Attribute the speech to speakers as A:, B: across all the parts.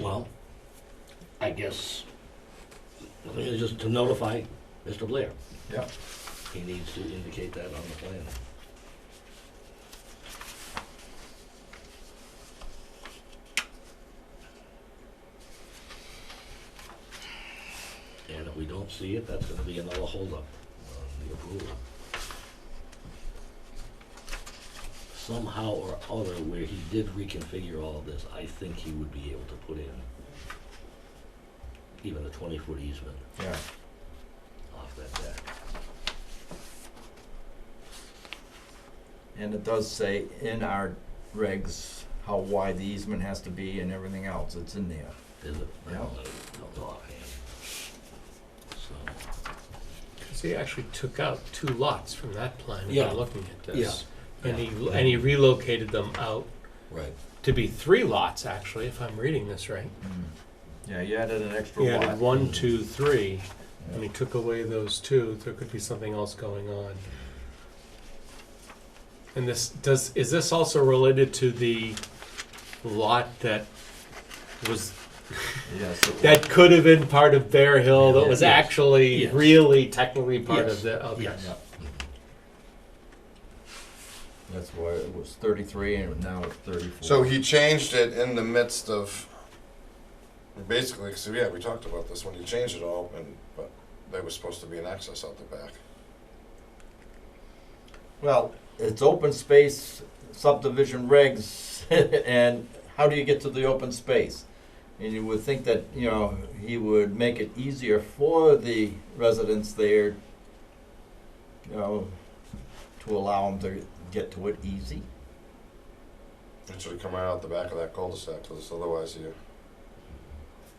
A: Well, I guess, I think it's just to notify Mr. Blair.
B: Yeah.
A: He needs to indicate that on the plan. And if we don't see it, that's gonna be another holdup on the approval. Somehow or other, where he did reconfigure all of this, I think he would be able to put in even a twenty-foot easement
B: Yeah.
A: off that deck.
B: And it does say in our regs how wide the easement has to be and everything else, it's in there.
A: Is it? I
B: Yeah.
A: don't know, don't know offhand. So,
C: Because he actually took out two lots from that plan when
A: Yeah.
C: you're looking at this. And he,
A: Yeah.
C: and he relocated them out
A: right,
C: to be three lots, actually, if I'm reading this right.
B: Mm. Yeah, you added an extra
C: He
B: lot.
C: added one, two, three, and
B: Yeah.
C: he took away those two. There could be something else going on. And this, does, is this also related to the lot that was,
B: Yes. it
C: that could have been part of Bear Hill, that was
A: Yes.
C: actually
A: Yes.
C: really technically part
A: Yes.
C: of the, okay.
A: yes.
B: Yeah. was. That's why it was thirty-three and now it's thirty-four.
D: So he changed it in the midst of, basically, because yeah, we talked about this when he changed it all, and but there was supposed to be an access out the back.
B: Well, it's open space subdivision regs, and how do you get to the open space? And you would think that, you know, he would make it easier for the residents there, you know, to allow them to get to it easy.
D: It should come right out the back of that cul-de-sac, because otherwise you,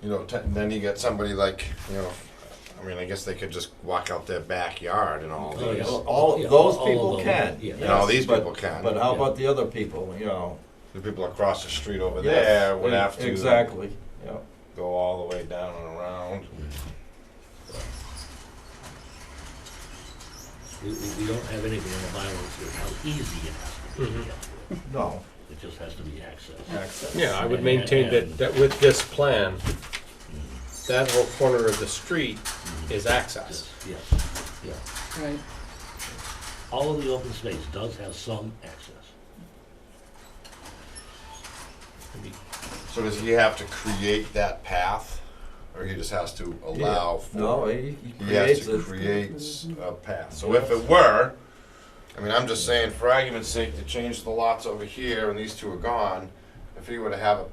D: you know, te- then you get somebody like, you know, I mean, I guess they could just walk out their backyard and all
A: Oh, yeah.
D: these.
B: All,
A: Yeah,
B: those
A: all of
B: people
A: them,
B: can.
A: yeah.
D: You know,
B: yes,
D: these
B: but-
D: people can.
B: But how about the other people, you know?
D: The people across the street over
B: Yes,
D: there would
B: e-
D: have to
B: Exactly, yeah.
D: go all the way down and around.
A: We, we, we don't have anything in the bylaws that how easy it has to be. to
C: Mhm.
A: get to it.
B: No,
A: It just has to be accessed.
B: access.
C: Yeah, I would
A: And-
C: maintain
A: and-
C: that, that with this plan, that whole corner of the street is access.
A: Yes, yeah.
E: Right.
A: All of the open space does have some access.
D: So does he have to create that path, or he just has to allow for?
B: No, he he
D: He has
B: creates
D: to
B: it.
D: create a path. So if it were, I mean, I'm just saying, for argument's sake, to change the lots over here and these two are gone, if he were to have a,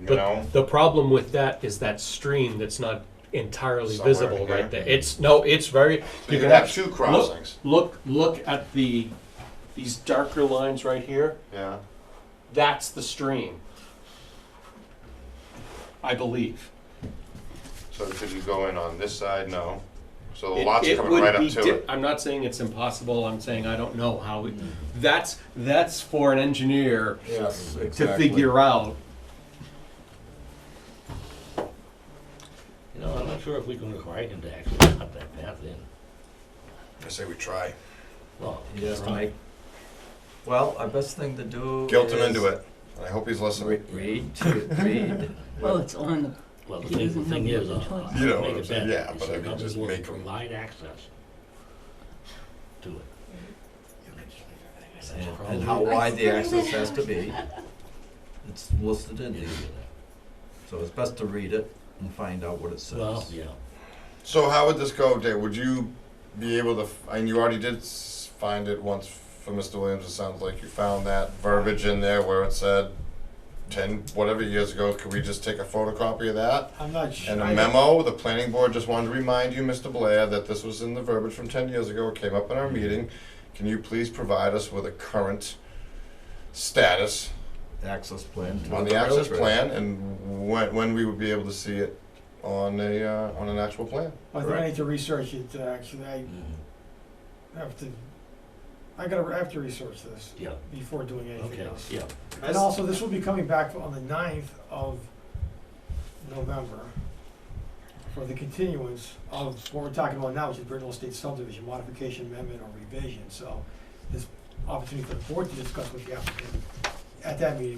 D: you know,
C: But the problem with that is that stream that's not entirely
D: Somewhere
C: visible
D: in here.
C: right there. It's, no, it's very,
D: so
C: you
D: you'd
C: can
D: have
C: actually,
D: two crossings.
C: look, look at the, these darker lines right here,
D: Yeah.
C: that's the stream. I believe.
D: So could you go in on this side? No. So the
C: It-
D: lots
C: it
D: coming
C: would
D: right up
C: be
D: to
C: di-
D: it.
C: I'm not saying it's impossible. I'm saying I don't know how. It, that's that's for an engineer
B: Yes,
C: to
B: exactly.
C: figure out.
A: You know, I'm not sure if we can require him to actually cut that path in.
D: I say we try.
A: Well,
B: He has to
A: right.
B: make. Well, our best thing to do.
D: Guilt him
B: is
D: into it. I hope he's
B: re-
D: listening.
B: Read, read.
E: Well, it's on the,
A: Well, the
E: He
A: thing, the
E: doesn't
A: thing
E: have
A: is,
E: a
A: uh,
E: choice.
A: I'll
D: You know what
A: make
D: I'm
A: it
D: saying,
A: better.
D: yeah, but I mean,
A: Nothing
D: just
A: will
D: make 'em-
A: Provide access to it. That's the
B: And-
A: problem.
B: And how wide the access has to be. It's listed in
A: Yeah,
B: here,
A: you do
B: so it's best to read it and find out what it
A: that. Well,
B: says.
A: yeah,
D: So how would this go, Dave? Would you be able to, f- and you already did s- find it once for Mr. Williams, it sounds like you found that verbiage in there where it said ten, whatever years ago, could we just take a photocopy of that?
F: I'm not sure.
D: And a memo, the planning board just wanted to remind you, Mr. Blair, that this was in the verbiage from ten years ago, it came up in our meeting. Can you please provide us with a current status
B: Access plan. to
D: on the access
B: railroad.
D: plan and when, when we would be able to see it on a, uh, on an actual plan?
F: I think I need to research it, uh, actually, I
A: Mhm.
F: have to, I gotta, I have to research this
A: yeah,
F: before doing anything
A: okay,
F: else.
A: yeah.
F: And also, this will be coming back on the ninth of November for the continuance of what we're talking about now, which is Brittenell Estate subdivision modification amendment or revision, so there's opportunity for the board to discuss with the applicant at that meeting